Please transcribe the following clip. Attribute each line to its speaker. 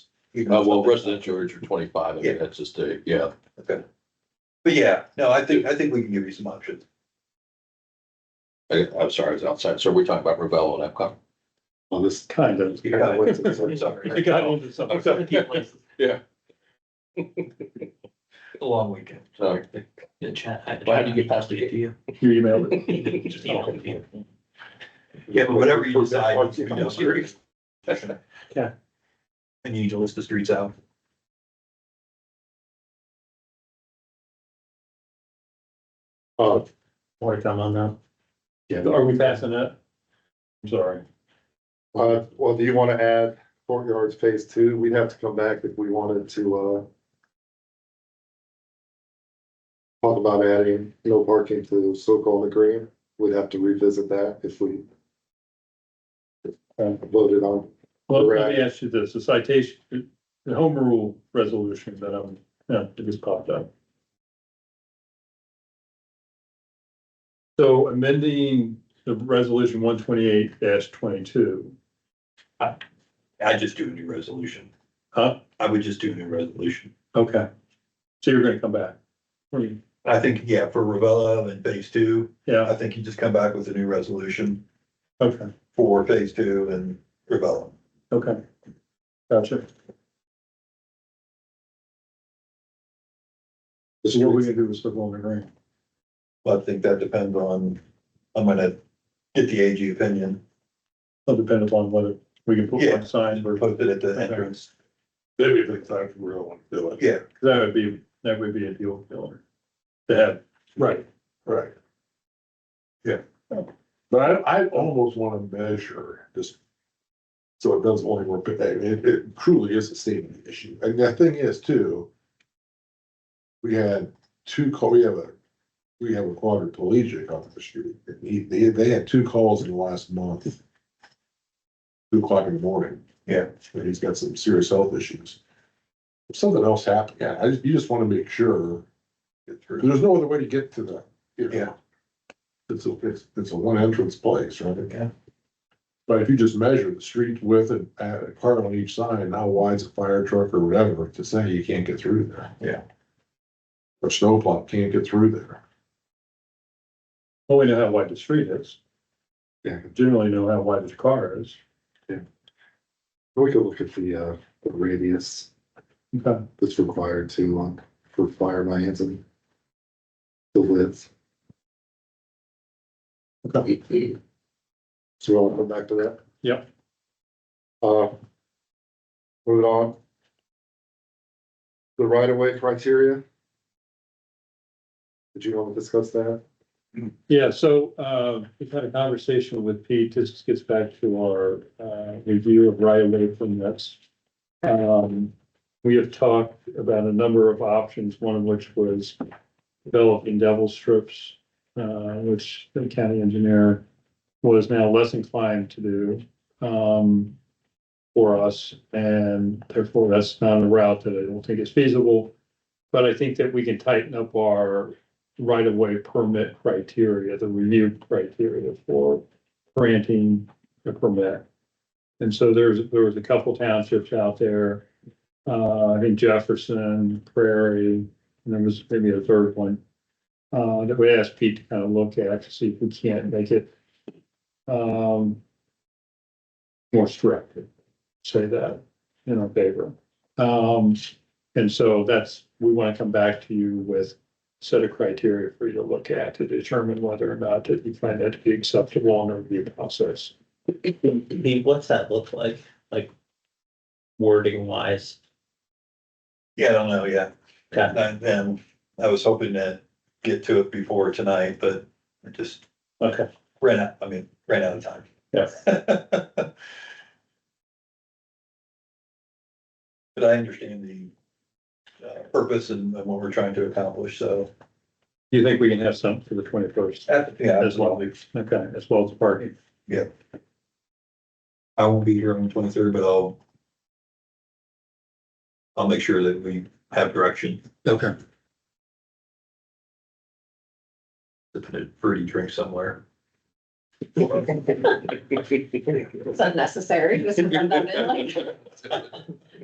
Speaker 1: Uh,
Speaker 2: Uh, well, residential rates are twenty-five, I
Speaker 1: Yeah.
Speaker 2: mean, that's just a, yeah,
Speaker 1: Okay. But yeah, no, I think, I think we can give you some options.
Speaker 2: I, I'm sorry, I was outside, so we're talking about Ravel and Epcot.
Speaker 3: Well, this kind of.
Speaker 1: You got what- I'm sorry.
Speaker 3: You got into something.
Speaker 2: Okay. Yeah.
Speaker 4: A long weekend.
Speaker 2: So,
Speaker 4: The chat.
Speaker 2: Well, how do you get past it?
Speaker 4: You.
Speaker 3: You emailed it.
Speaker 4: Just email it.
Speaker 1: Yeah, but whatever you decide. you know, you're-
Speaker 3: Yeah.
Speaker 1: And you need to list the streets out.
Speaker 3: Oh, more to come on that. Yeah, are we passing that? I'm sorry.
Speaker 5: Uh, well, do you wanna add courtyards phase two? We'd have to come back if we wanted to, uh. Talk about adding no parking to so-called the green. We'd have to revisit that if we. Voted on,
Speaker 3: Well, let me ask you this, the citation, the home rule resolution that I'm, yeah, it just popped up. So amending the resolution one twenty-eight twenty-two,
Speaker 1: I just do a new resolution.
Speaker 3: huh?
Speaker 1: I would just do a new resolution.
Speaker 3: Okay. So you're gonna come back? Hmm,
Speaker 1: I think, yeah, for Ravella and phase two,
Speaker 3: Yeah,
Speaker 1: I think you just come back with a new resolution
Speaker 3: okay,
Speaker 1: for phase two and Ravella.
Speaker 3: okay. Gotcha. So what we gonna do with the Bowling Green?
Speaker 1: But I think that depends on, I'm gonna get the AG opinion,
Speaker 3: It'll depend upon whether we can put
Speaker 1: Yeah.
Speaker 3: one sign or,
Speaker 1: post it at the entrance.
Speaker 5: Maybe the time we don't want to do it.
Speaker 1: Yeah,
Speaker 3: that would be, that would be a deal killer. To have,
Speaker 5: Right, right. Yeah, but I, I almost wanna measure this. So it doesn't only work, but it, it truly is a safety issue, and the thing is too. We had two call, we have a, we have a quadriplegic on the street, and he, they, they had two calls in the last month. Two o'clock in the morning.
Speaker 1: Yeah.
Speaker 5: And he's got some serious health issues. If something else happened, yeah, I, just- you just wanna make sure.
Speaker 1: get through.
Speaker 5: There's no other way to get to the, you know.
Speaker 1: Yeah.
Speaker 5: It's a, it's, it's a one entrance place, right?
Speaker 1: Yeah.
Speaker 5: But if you just measure the street width and add a car on each side, and how wide's a fire truck or whatever, to say you can't get through there.
Speaker 1: Yeah.
Speaker 5: Or snowplow can't get through there.
Speaker 3: well, we know how wide the street is.
Speaker 5: Yeah.
Speaker 3: Generally know how wide the car is.
Speaker 5: We could look at the, uh, radius
Speaker 3: Okay.
Speaker 5: that's required to, um, for fire lanes and the width. So we'll come back to that?
Speaker 3: Yep.
Speaker 5: Uh. Moving on. The right of way criteria. Did you want to discuss that?
Speaker 3: Yeah, so, uh, we've had a conversation with Pete, this gets back to our, uh, review of right away from this. Um, we have talked about a number of options, one of which was developing devil strips, uh, which the county engineer was now less inclined to do, um, for us, and therefore that's not a route that I don't think is feasible. But I think that we can tighten up our right of way permit criteria, the review criteria for granting a permit. And so there's, there was a couple townships out there, uh, I think Jefferson, Prairie, and there was maybe a third one. Uh, that we asked Pete to kind of look at to see if we can't make it, um, more strict, say that in our favor. Um, and so that's, we want to come back to you with set of criteria for you to look at to determine whether or not that you find that to be acceptable in the review process.
Speaker 4: Pete, what's that look like, like wording wise?
Speaker 1: Yeah, I don't know, yeah.
Speaker 4: Okay.
Speaker 1: And then I was hoping to get to it before tonight, but I just
Speaker 3: Okay.
Speaker 1: ran out, I mean, ran out of time.
Speaker 3: Yeah.
Speaker 1: But I understand the uh, purpose and and what we're trying to accomplish, so.
Speaker 3: Do you think we can have something for the twenty-first
Speaker 1: Yeah,
Speaker 3: as well? Okay, as well as the parking.
Speaker 1: I won't be here on the twenty-third, but I'll I'll make sure that we have direction
Speaker 3: Okay.
Speaker 1: to put a fruity drink somewhere.
Speaker 6: It's unnecessary, just redundant, like.